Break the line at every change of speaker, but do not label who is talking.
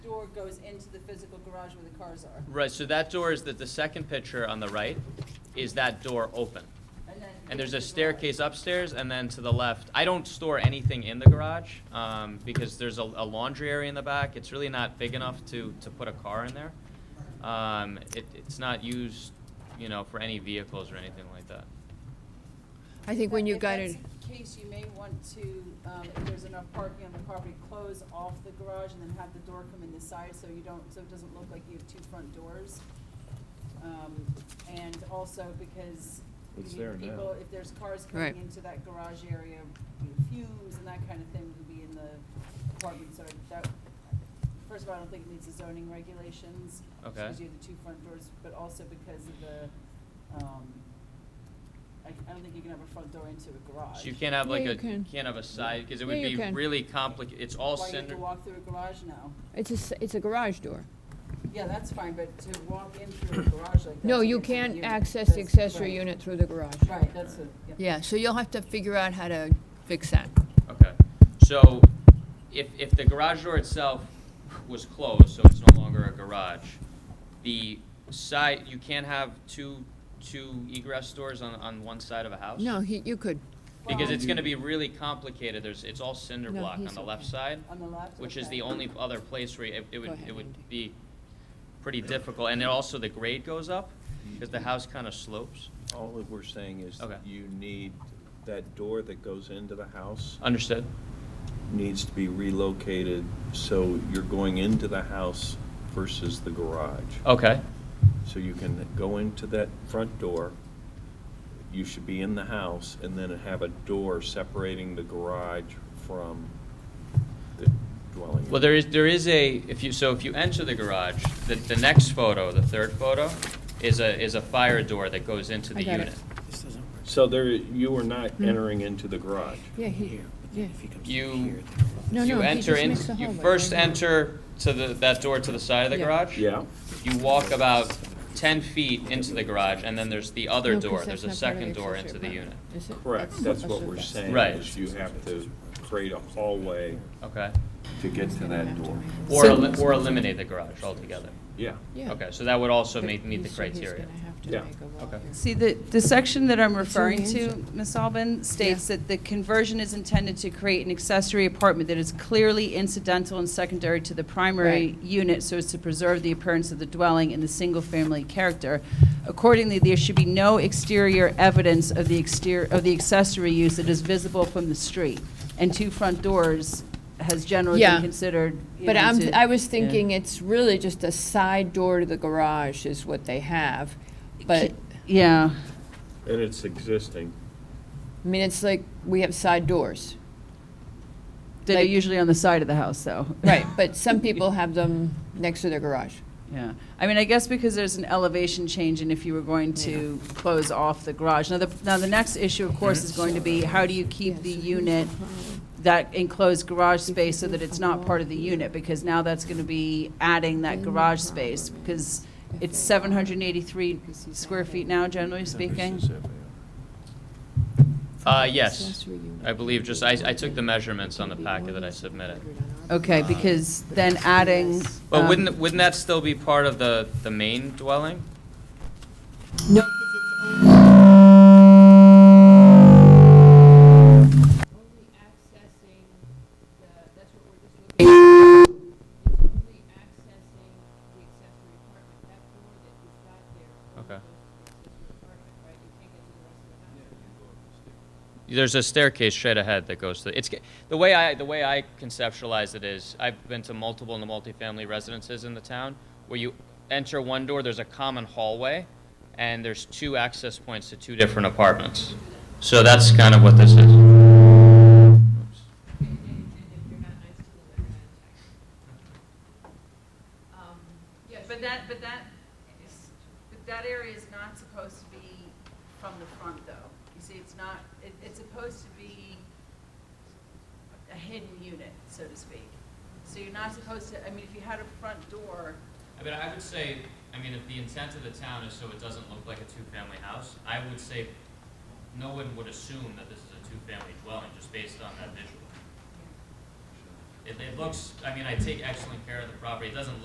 goes into the physical garage where the cars are.
Right, so that door is that the second picture on the right is that door open.
And then.
And there's
into
a
the garage.
staircase upstairs and then to the left. I don't store anything in the garage, um, because there's a, a laundry area in the back. It's really not big enough to, to put a car in there. Um, it, it's not used, you know, for any vehicles or anything like that.
I think when
But
you
if
got
that's
it,
the Case, you may want to, um, if there's enough parking on the property, close off the garage and then have the door come in the side so you don't, so it doesn't look like you have two front doors. Um, and also because you
It's
know,
there now.
people, if there's cars
Right.
coming into that garage area, you know, fumes and that kind of thing would be in the apartment, so that, first of all, I don't think it meets the zoning regulations.
Okay.
Because you have the two front doors, but also because of the, um, I, I don't think you can have a front door into a garage.
So you can't have like
Yeah, you
a,
can.
can't have a side, because it would
Yeah,
be
you can.
really complicated. It's
Why
all
you have
cinder.
to walk through a garage now?
it's a, s- it's a garage door.
Yeah, that's fine, but to walk in through a garage like that.
No,
to
you
get to the
can't
unit,
access the
that's-
accessory
right.
unit through the garage.
Right, that's what, yeah.
Yeah, so you'll have to figure out how to fix that.
Okay, so if, if the garage door itself was closed, so it's no longer a garage, the side, you can't have two, two egress doors on, on one side of a house?
No, he, you could.
Because
Well-
it's gonna be really complicated, there's, it's all cinder
No,
block on
he's
the left
okay.
side,
On the left?
which is
okay.
the only other place where it, it
Go
would,
ahead,
it would
Andy.
be pretty difficult, and then also the grade goes up, because the house kinda slopes.
All that we're saying is
Okay.
that you need, that door that goes into the house
Understood?
needs to be relocated, so you're going into the house versus the garage.
Okay,
So you can go into that front door, you should be in the house, and then have a door separating the garage from the dwelling.
Well, there is, there is a, if you, so if you enter the garage, the, the next photo, the third photo, is a, is a fire door that goes into
I
the
got it.
unit.
This doesn't work.
So there, you are not entering into the garage.
Yeah, he,
Here, but
yeah.
then if he comes
You-
from here, then-
No,
You
no, he
enter
just
in,
makes the
you
hallway,
first
right?
enter to the, that door to the side of the
Yeah.
garage.
Yeah?
You walk about ten feet into the garage, and then there's the other
No, 'cause
door,
that's
there's a
not part of
second door
accessory
into the unit.
apartment, is it?
Correct, that's what
a-
we're saying.
Right.
Is you have to create a hallway
Okay.
to get to that door.
Or,
So-
elim- or eliminate the garage altogether.
Yeah.
Yeah.
Okay, so that would also
But
meet, meet
he
the
said he's
criteria.
gonna have to
Yeah.
make a wall
Okay.
here.
See, the, the section that I'm
It's in the
referring to,
answer.
Ms. Albin, states that the conversion is intended to create an accessory apartment that is clearly incidental and secondary to the primary
Right.
unit so as to preserve the appearance of the dwelling and the single-family character. Accordingly, there should be no exterior evidence of the exterior, of the accessory use that is visible from the street. And two front doors has generally
Yeah.
been considered, you
But
know,
I'm,
to-
I was
Yeah.
thinking it's really just a side door to the garage is what they have. But,
Yeah.
And it's existing.
I mean, it's like, we have side doors.
That are
Like-
usually on the side of the house, though.
Right, but some people have them next to their garage.
Yeah, I mean, I guess because there's an elevation change and if you were going to close off the garage. Now, the, now the next issue, of course, is going to be how do you keep the unit, that enclosed garage space so that it's not part of the unit? Because now that's gonna be adding that garage space because it's seven hundred and eighty-three square feet now, generally speaking.
Uh, yes, I believe, just, I, I took the measurements on the packet that I submitted.
Okay, because then adding.
But
um,
wouldn't, wouldn't that still be part of the, the main dwelling?
No,
only accessing the, that's what we're just looking at. It's only accessing the accessory apartment, that door that you've got there. only
Okay.
goes to the accessory apartment, right? You can't get to the rest of the house.
There's a staircase straight ahead that goes to, it's, the way I, the way I conceptualize it is, I've been to multiple and multifamily residences in the town, where you enter one door, there's a common hallway, and there's two access points to two different apartments. So that's kind of what this is. Oops.
And, and, and if you're not nice to them, they're gonna attack you. Um, yes.
But that, but that, is- but that area is not supposed to be from the front, though. You see, it's not, it, it's supposed to be a hidden unit, so to speak. So you're not supposed to, I mean, if you had a front door,
I mean, I would say, I mean, if the intent of the town is so it doesn't look like a two-family house, I would say no one would assume that this is a two-family dwelling just based on that visual. It, it looks, I mean, I take excellent care of the property, it doesn't